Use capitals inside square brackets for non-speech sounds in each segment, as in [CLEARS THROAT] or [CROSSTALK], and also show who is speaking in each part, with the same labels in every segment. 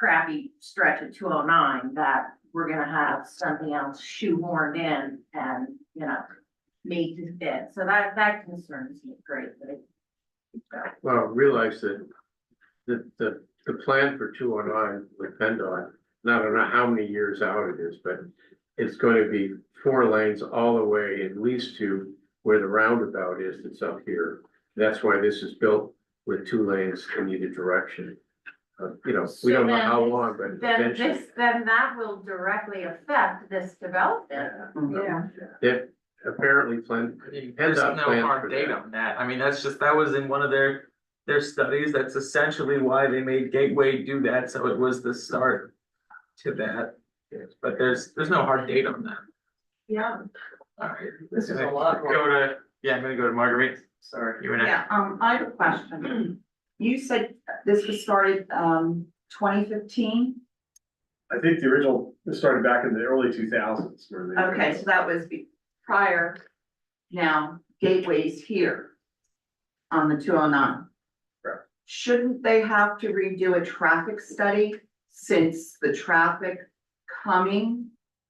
Speaker 1: crappy stretch of two oh nine that we're gonna have something else shoehorned in and, you know, made to fit. So that, that concerns me greatly.
Speaker 2: Well, realize that the, the, the plan for two oh nine with PennDOT, and I don't know how many years out it is, but it's going to be four lanes all the way at least to where the roundabout is that's up here. That's why this is built with two lanes in either direction. Uh, you know, we don't know how
Speaker 1: So then-
Speaker 2: long, but
Speaker 1: Then
Speaker 2: eventually,
Speaker 1: this, then that will directly affect this development.
Speaker 3: Yeah.
Speaker 2: that apparently plan,
Speaker 4: There's
Speaker 2: PennDOT
Speaker 4: no
Speaker 2: plans for
Speaker 4: hard date
Speaker 2: that.
Speaker 4: on that, I mean, that's just, that was in one of their, their studies, that's essentially why they made Gateway do that, so it was the start. To that, but there's, there's no hard date on that,
Speaker 1: [LAUGHS] Yeah.
Speaker 4: alright.
Speaker 3: This is a lot more-
Speaker 4: Go to, yeah, I'm gonna go to Marguerite,
Speaker 3: Sorry.
Speaker 4: you and I,
Speaker 3: Um, I have a question. You said this was started, um, twenty fifteen?
Speaker 5: I think the original, it started back in the early two thousands where they.
Speaker 3: Okay, so that was be- prior. Now Gateway's here on the two oh nine.
Speaker 5: Correct.
Speaker 3: Shouldn't they have to redo a traffic study since the traffic coming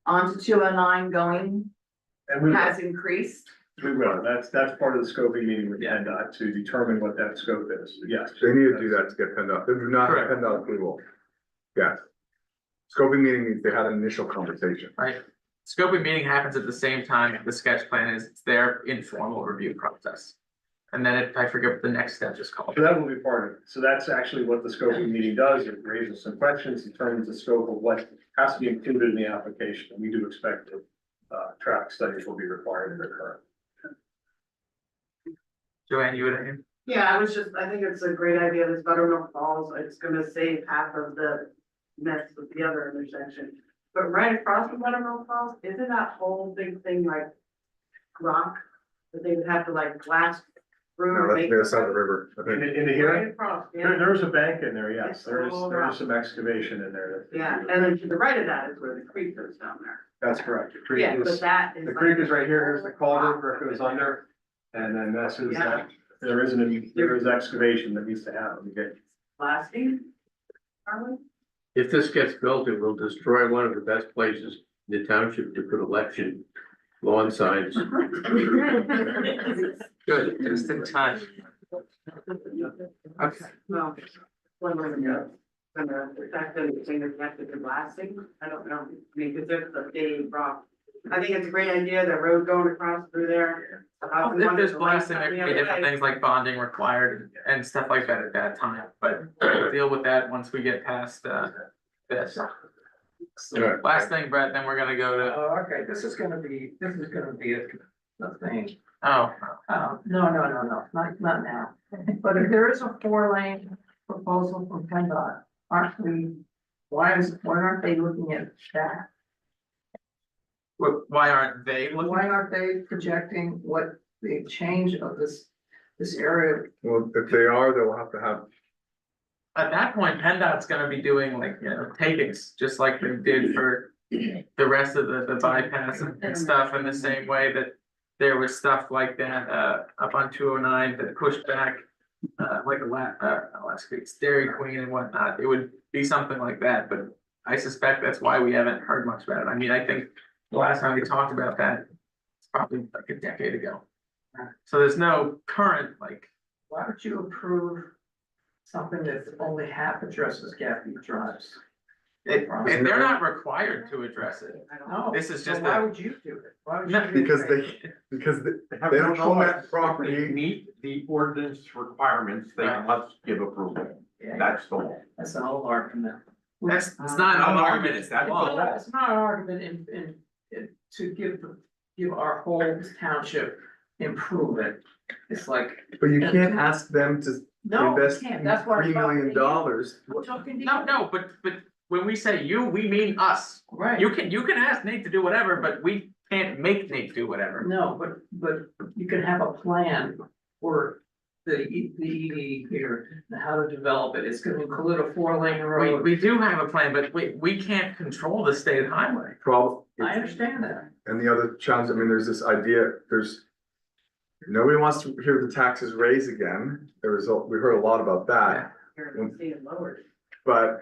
Speaker 3: onto two oh nine going
Speaker 5: And we,
Speaker 3: has increased?
Speaker 5: we will, that's, that's part of the scoping meeting with
Speaker 4: Yeah.
Speaker 5: PennDOT to determine what that scope is, yes.
Speaker 6: They need to do that to get PennDOT, they do not have
Speaker 4: Correct.
Speaker 6: PennDOT approval. Yes. Scoping meeting means they had an initial conversation.
Speaker 4: right? Scoping meeting happens at the same time, the sketch plan is, it's their informal review process. And then it- I forget what the next step is called.
Speaker 5: So that will be part of it. So that's actually what the scoping meeting does. It raises some questions, determines the scope of what has to be included in the application. And we do expect that uh, traffic studies will be required in the current.
Speaker 4: Joanne, you would,
Speaker 7: Yeah, I was just, I think it's a great idea, this Buttermilk Falls, it's gonna save half of the mess with the other intersection. But right across from Buttermilk Falls, isn't that whole big thing like rock? That they would have to like blast through.
Speaker 6: No,
Speaker 7: or
Speaker 6: that's
Speaker 7: make-
Speaker 6: the other side of the river. I
Speaker 5: In
Speaker 6: think.
Speaker 5: the, in the
Speaker 7: Right
Speaker 5: hearing,
Speaker 7: across,
Speaker 5: there,
Speaker 7: yeah,
Speaker 5: there's a bank in there, yes. There is, there is some excavation in there. that-
Speaker 7: yeah, and then to the right of that is where the creek goes down there.
Speaker 5: That's correct. The creek
Speaker 7: Yeah,
Speaker 5: is-
Speaker 7: but that is.
Speaker 5: The
Speaker 7: like-
Speaker 5: creek is right here, here's the culvert where it goes under, and then that's who's that. There isn't, any- there is excavation that needs to happen, okay?
Speaker 7: Blasting, are we?
Speaker 2: If this gets built, it will destroy one of the best places in the township to put election lawn
Speaker 7: [LAUGHS]
Speaker 2: signs.
Speaker 4: good, just in time, okay.
Speaker 7: Well, one more ago, when the the fact that it's saying it's connected to blasting, I don't know, I mean, because there's a big rock. I think it's a great idea, that road going across through there. the house
Speaker 4: If
Speaker 7: on
Speaker 4: there's
Speaker 7: the
Speaker 4: blasting, there could be
Speaker 7: left, on the other
Speaker 4: different
Speaker 7: side.
Speaker 4: things like bonding required and stuff like that at that time,
Speaker 8: [CLEARS THROAT]
Speaker 4: but we'll deal with that once we get past uh this.
Speaker 2: Alright.
Speaker 4: Last thing, Brett, then we're gonna go to,
Speaker 8: Oh, okay, this is gonna be, this is gonna be a, a thing,
Speaker 4: oh,
Speaker 8: um, no, no, no, no, not, not now. But if there is a four lane proposal from PennDOT, aren't we, why is, why aren't they looking at that?
Speaker 4: wh- why aren't they looking?
Speaker 8: Why aren't they projecting what the change of this, this area?
Speaker 6: Well, if they are, they will have to have,
Speaker 4: At that point, PennDOT's gonna be doing like, you know, takings, just like they did for the rest of the the bypass and and stuff in the same way that there was stuff like that uh up on two oh nine that pushed back uh like a la- uh not last week's Dairy Queen and whatnot. It would be something like that, but I suspect that's why we haven't heard much about it. I mean, I think the last time we talked about that, it's probably like a decade ago. So there's no current like
Speaker 8: Why would you approve something that's only half addresses Gaffey Drives?
Speaker 4: It,
Speaker 8: Right.
Speaker 4: and they're not required to address it.
Speaker 7: I don't know.
Speaker 8: No,
Speaker 4: This is
Speaker 8: so
Speaker 4: just
Speaker 8: why
Speaker 4: a-
Speaker 8: would you do it? Why would you?
Speaker 4: No,
Speaker 8: do
Speaker 6: because
Speaker 8: that?
Speaker 6: they, because they They don't own that property.
Speaker 9: Meet the ordinance requirements, they
Speaker 4: Right.
Speaker 9: must give approval,
Speaker 8: Yeah,
Speaker 9: that's the law.
Speaker 8: that's an old argument.
Speaker 4: That's, it's not an
Speaker 9: Not an
Speaker 4: argument,
Speaker 9: argument,
Speaker 4: it's
Speaker 9: it's that-
Speaker 4: that
Speaker 8: Well,
Speaker 4: law.
Speaker 8: no, it's not an argument in, in, in, to give, the- give our whole township improvement. It's like,
Speaker 6: but you can't ask them to
Speaker 8: no, you
Speaker 6: invest
Speaker 8: can't, that's why.
Speaker 6: three million dollars.
Speaker 8: I'm talking to you.
Speaker 4: No, no, but, but when we say you, we mean us.
Speaker 8: Right,
Speaker 4: You can, you can ask Nate to do whatever, but we can't make Nate do whatever.
Speaker 8: no, but, but you can have a plan for the, E- the ED here, and how to develop it, it's gonna include a four lane
Speaker 4: We,
Speaker 8: road.
Speaker 4: we do have a plan, but we, we can't control the state highway.
Speaker 6: Problem,
Speaker 8: I understand that,
Speaker 6: and the other challenge, I mean, there's this idea, there's. Nobody wants to hear the taxes raised again, there was, a- we heard a lot about that,
Speaker 7: Here, it's being lowered.
Speaker 6: but